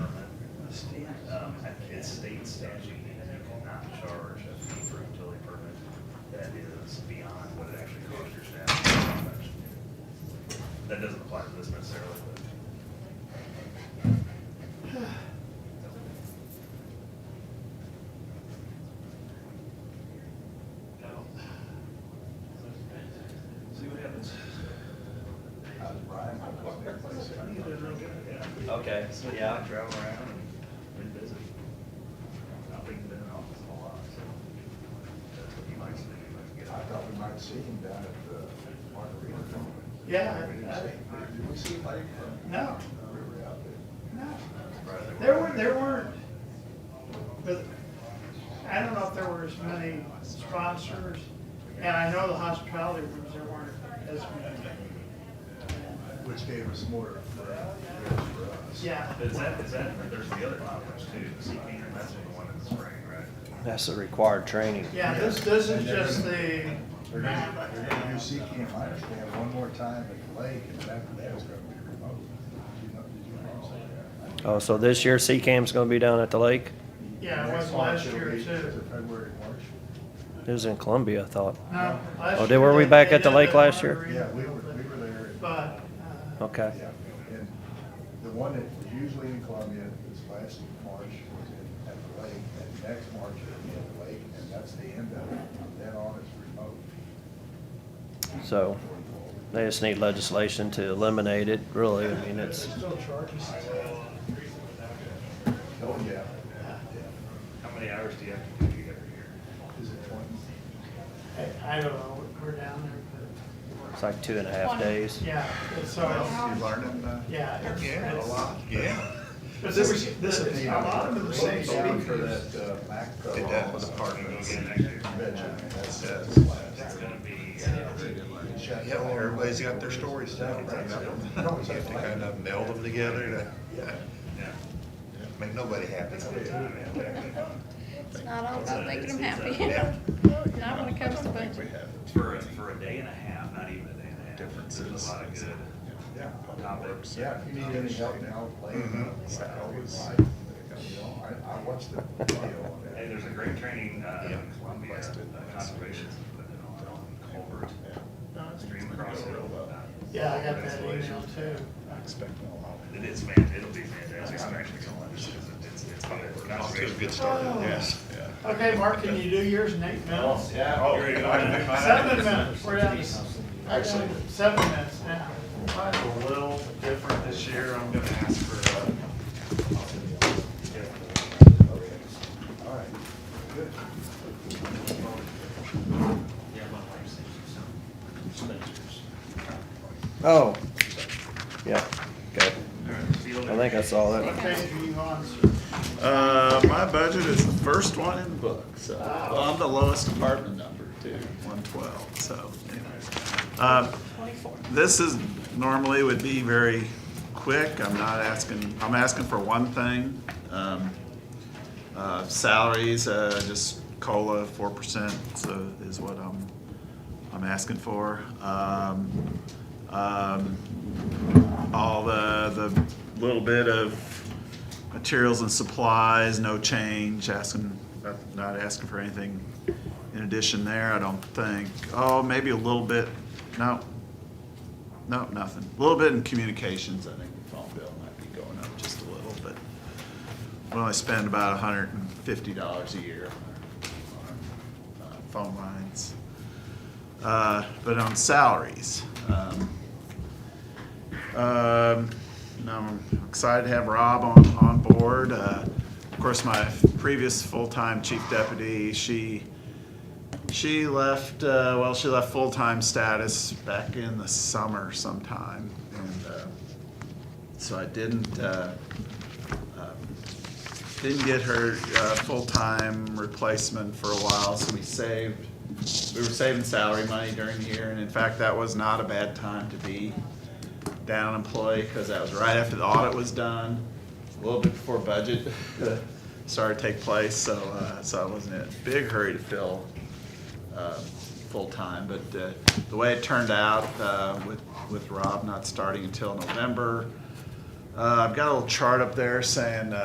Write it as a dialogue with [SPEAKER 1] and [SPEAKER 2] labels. [SPEAKER 1] Um, state statute means you cannot charge a fee for a utility permit that is beyond what it actually costs your staff. to do that. That doesn't apply to this necessarily, but. See what happens.
[SPEAKER 2] How's Brian?
[SPEAKER 1] He's doing real good, yeah.
[SPEAKER 3] Okay, so yeah,
[SPEAKER 1] Travel around and been busy. I've been in the office a lot, so that's what he likes to do, he likes to
[SPEAKER 2] I
[SPEAKER 1] get out.
[SPEAKER 2] thought we might see him down at the Margarita.
[SPEAKER 4] Yeah,
[SPEAKER 2] We didn't
[SPEAKER 4] I-
[SPEAKER 2] see him. Did we see him late?
[SPEAKER 4] No.
[SPEAKER 2] We were out there.
[SPEAKER 4] No,
[SPEAKER 1] Surprised they
[SPEAKER 4] there
[SPEAKER 1] weren't.
[SPEAKER 4] were, there weren't, but I don't know if there were as many sponsors, and I know the hospitality rooms, there weren't as many.
[SPEAKER 2] Which gave us more for, for us.
[SPEAKER 4] Yeah,
[SPEAKER 1] But is that, is that, there's the other conference too, the CP, and that's the one in the spring, right?
[SPEAKER 3] that's the required training.
[SPEAKER 4] yeah, this, this is just the,
[SPEAKER 2] They're gonna, they're gonna do sea camp, I understand, one more time at the lake, and then after that, it's gonna be remote. Did you know, did you know?
[SPEAKER 3] Oh, so this year CCAM's gonna be down at the lake?
[SPEAKER 4] Yeah, it
[SPEAKER 2] Next
[SPEAKER 4] was
[SPEAKER 2] launch
[SPEAKER 4] last
[SPEAKER 2] will
[SPEAKER 4] year,
[SPEAKER 2] be-
[SPEAKER 4] too.
[SPEAKER 2] is it February, March.
[SPEAKER 3] It was in Columbia, I thought.
[SPEAKER 4] no, last
[SPEAKER 3] Oh,
[SPEAKER 4] year.
[SPEAKER 3] did- were we
[SPEAKER 4] they-
[SPEAKER 3] back
[SPEAKER 4] they
[SPEAKER 3] at the
[SPEAKER 4] did
[SPEAKER 3] lake
[SPEAKER 4] that
[SPEAKER 3] last year?
[SPEAKER 4] Margarita,
[SPEAKER 2] Yeah, we were, we were there. in-
[SPEAKER 4] But, uh,
[SPEAKER 3] Okay.
[SPEAKER 2] Yeah, and the one that was usually in Columbia, this last March was in, at the lake, and next March it'll be at the lake, and that's the end of it. From Then on is remote.
[SPEAKER 3] So they just need legislation to eliminate it, really. I mean, it's,
[SPEAKER 2] Oh, yeah,
[SPEAKER 1] How many hours do you have to do every year?
[SPEAKER 2] is it twenty?
[SPEAKER 4] I, I don't know, we're down there,
[SPEAKER 3] it's like two and a half days.
[SPEAKER 4] but, yeah, it's- so, it's-
[SPEAKER 2] You learning, uh?
[SPEAKER 4] yeah. it's- it's-
[SPEAKER 2] yeah.
[SPEAKER 4] But this is, this is, a lot of them are saying,
[SPEAKER 2] Voting for that, uh, MACPA.
[SPEAKER 5] Did that with the park.
[SPEAKER 1] Parking again next year.
[SPEAKER 2] Convention, I mean, that's, that's
[SPEAKER 5] Yeah.
[SPEAKER 1] It's
[SPEAKER 2] last.
[SPEAKER 1] gonna be, uh,
[SPEAKER 5] Yeah, well, everybody's got their stories down, right?
[SPEAKER 2] No,
[SPEAKER 5] You
[SPEAKER 2] it's
[SPEAKER 5] have to
[SPEAKER 2] like-
[SPEAKER 5] kind of meld them together to
[SPEAKER 1] yeah.
[SPEAKER 5] make nobody happy.
[SPEAKER 6] It's not all about making them happy.
[SPEAKER 5] Yeah.
[SPEAKER 6] Not when it comes to budget.
[SPEAKER 1] For, a- for a day and a half, not even a day and a half. There's
[SPEAKER 5] Differences.
[SPEAKER 1] a lot of good
[SPEAKER 2] Yeah.
[SPEAKER 1] topics.
[SPEAKER 2] Yeah, if you need any help now, play.
[SPEAKER 5] Mhm.
[SPEAKER 2] It's like always, like, you know, I, I watched the video on
[SPEAKER 1] Hey,
[SPEAKER 2] that.
[SPEAKER 1] there's a great training, uh, in Columbia, uh, conservation, but then on Colbert, stream crossing.
[SPEAKER 4] yeah, I got that email too.
[SPEAKER 1] It is fan, it'll be fantastic, I'm actually gonna watch it, it's, it's, it's fun.
[SPEAKER 5] Off to a good start, yes.
[SPEAKER 4] Okay, Mark, can you do yours in eight minutes?
[SPEAKER 1] Oh, you're gonna-
[SPEAKER 4] Seven minutes, we're down to, actually, seven minutes now.
[SPEAKER 1] Mine's a little different this year, I'm gonna ask for, uh,
[SPEAKER 2] All right, good.
[SPEAKER 3] Oh, yeah, okay.
[SPEAKER 1] field.
[SPEAKER 3] I think I saw that.
[SPEAKER 4] What page are you on, sir?
[SPEAKER 7] Uh, my budget is the first one in the book, so, well, I'm the lowest department number too, one twelve, so anyways. Uh, This is, normally would be very quick, I'm not asking, I'm asking for one thing. Um, uh, Salaries, uh, just COLA, four percent, so is what I'm, I'm asking for. Um, um, all the, the little bit of materials and supplies, no change, asking, not asking for anything in addition there, I don't think. Oh, maybe a little bit, no, no, nothing. A little bit in communications, I think the phone bill might be going up just a little, but we only spend about hundred and fifty dollars a year on our- on our uh, phone lines. Uh, But on salaries, um, um, and I'm excited to have Rob on, on board. Uh, Of course, my previous full-time chief deputy, she, she left, uh, well, she left full-time status back in the summer sometime. And uh, so I didn't, uh, um, didn't get her uh, full-time replacement for a while, so we saved, we were saving salary money during the year. And in fact, that was not a bad time to be down employee because that was right after the audit was done, a little bit before budget started to take place, so, uh, so I wasn't in a big hurry to fill, uh, full-time, but, uh, the way it turned out, uh, with, with Rob not starting until November, uh, I've got a little chart up there saying, uh,